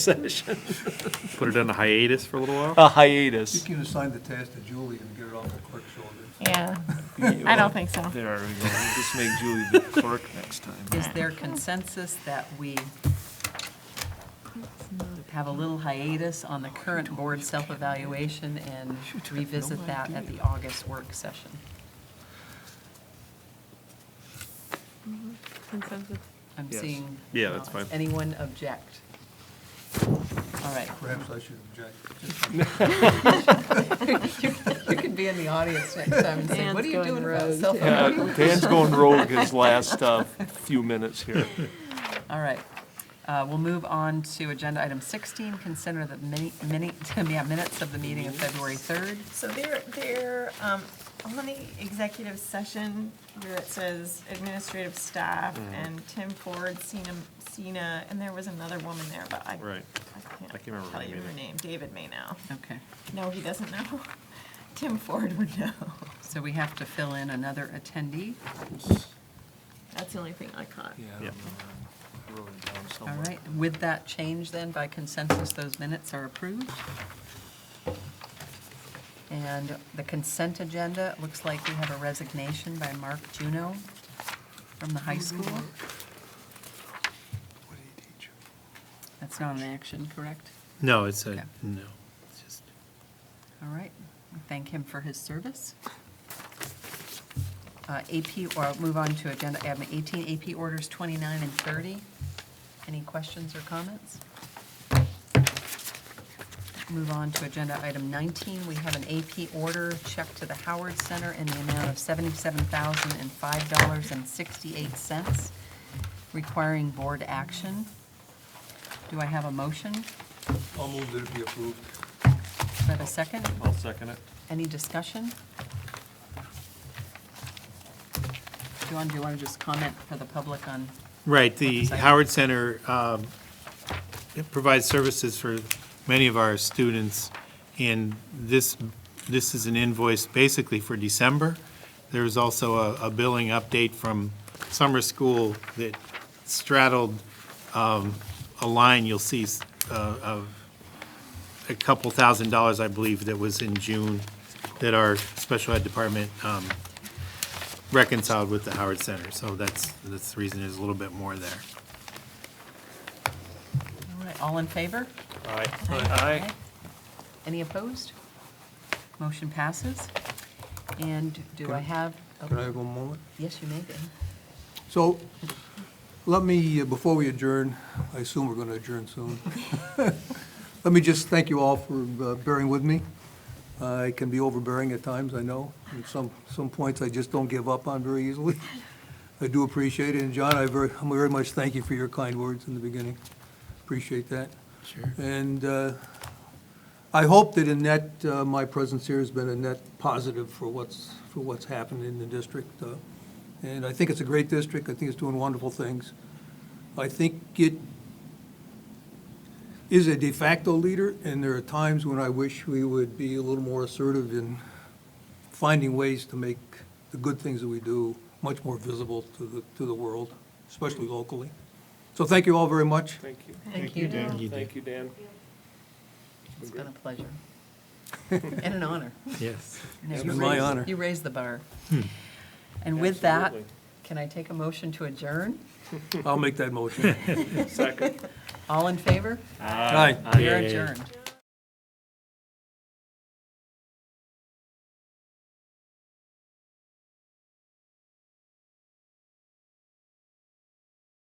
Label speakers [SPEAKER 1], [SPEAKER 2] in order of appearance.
[SPEAKER 1] session.
[SPEAKER 2] Put it on a hiatus for a little while?
[SPEAKER 1] A
[SPEAKER 3] You
[SPEAKER 1] hiatus.
[SPEAKER 3] can assign the task to Julie and get it off the clerk's shoulders.
[SPEAKER 4] Yeah, I don't think so.
[SPEAKER 5] There we go. We'll Just make Julie the clerk next time.
[SPEAKER 6] Is there consensus that we have a little hiatus on the current board self-evaluation and revisit that at the August work session?
[SPEAKER 4] Consensus.
[SPEAKER 6] I'm
[SPEAKER 5] Yes.
[SPEAKER 6] seeing.
[SPEAKER 2] Yeah, that's fine.
[SPEAKER 6] Anyone object? All right.
[SPEAKER 3] Perhaps I should object.
[SPEAKER 6] You could be in the audience next time and say, what are you doing about self-evaluation?
[SPEAKER 5] Yeah, Dan's going rogue his last uh, few minutes here.
[SPEAKER 6] All right. Uh, We'll move on to agenda item 16, consider the mini- mini- yeah, minutes of the meeting of February 3rd.
[SPEAKER 7] So there, there, um, on the executive session where it says administrative staff
[SPEAKER 2] Mm-hmm.
[SPEAKER 7] and Tim Ford, Sina, Sina, and there was another woman there, but I.
[SPEAKER 2] Right.
[SPEAKER 7] I
[SPEAKER 2] I can't
[SPEAKER 7] can't
[SPEAKER 2] remember her
[SPEAKER 7] tell you
[SPEAKER 2] name
[SPEAKER 7] her
[SPEAKER 2] either.
[SPEAKER 7] name. David may know.
[SPEAKER 6] Okay.
[SPEAKER 7] No, he doesn't know. Tim Ford would know.
[SPEAKER 6] So we have to fill in another attendee.
[SPEAKER 7] That's the only thing I caught.
[SPEAKER 5] Yeah, I
[SPEAKER 2] Yeah.
[SPEAKER 5] don't know. I wrote it down
[SPEAKER 6] All
[SPEAKER 5] somewhere.
[SPEAKER 6] right, with that change then, by consensus, those minutes are approved. And the consent agenda, it looks like we have a resignation by Mark Juno from the high school. That's not an action, correct?
[SPEAKER 1] No, it's
[SPEAKER 6] Okay.
[SPEAKER 1] a, no. It's just-
[SPEAKER 6] All right, we thank him for his service. Uh, AP, or I'll move on to agenda item 18, AP orders 29 and 30. Any questions or comments? Move on to agenda item 19, we have an AP order check to the Howard Center in the amount of $77,005.68, requiring board action. Do I have a motion? Do
[SPEAKER 3] I'll move that it be approved.
[SPEAKER 6] I have a second?
[SPEAKER 2] I'll second it.
[SPEAKER 6] Any discussion? John, do you want to just comment for the public on,
[SPEAKER 1] Right, the
[SPEAKER 6] Sorry.
[SPEAKER 1] Howard Center um, it provides services for many of our students, and this, this is an invoice basically for December. There was also a a billing update from summer school that straddled um, a line you'll see s- uh, of a couple thousand dollars, I believe, that was in June that our special ed department um, reconciled with the Howard Center. So that's, that's the reason there's a little bit more there.
[SPEAKER 6] all right, all in favor?
[SPEAKER 5] Aye.
[SPEAKER 6] Any opposed? Motion passes. And do I have, oh,
[SPEAKER 3] Can I have one moment?
[SPEAKER 6] yes, you may, Ben.
[SPEAKER 3] So let me, uh, before we adjourn, I assume we're going to adjourn soon. Let me just thank you all for uh, bearing with me. I can be overbearing at times, I know. At some, some points, I just don't give up on very easily. I do appreciate it, and John, I very, I very much thank you for your kind words in the beginning. Appreciate that.
[SPEAKER 1] Sure.
[SPEAKER 3] And uh, I hope that in that, uh, my presence here has been a net positive for what's, for what's happened in the district. uh, And I think it's a great district, I think it's doing wonderful things. I think it is a de facto leader, and there are times when I wish we would be a little more assertive in finding ways to make the good things that we do much more visible to the, to the world, especially locally. So thank you all very much.
[SPEAKER 5] Thank you.
[SPEAKER 6] Thank you, Dan.
[SPEAKER 1] You did,
[SPEAKER 5] Thank you, Dan.
[SPEAKER 6] It's been a pleasure. And an honor.
[SPEAKER 1] yes.
[SPEAKER 6] No,
[SPEAKER 3] It's
[SPEAKER 6] you
[SPEAKER 3] been my
[SPEAKER 6] raised-
[SPEAKER 3] honor. Hmm.
[SPEAKER 6] You raised the bar. And with that,
[SPEAKER 5] Absolutely.
[SPEAKER 6] can I take a motion to adjourn?
[SPEAKER 3] I'll make that motion.
[SPEAKER 5] Second.
[SPEAKER 6] All in favor?
[SPEAKER 3] Aye.
[SPEAKER 6] We are adjourned.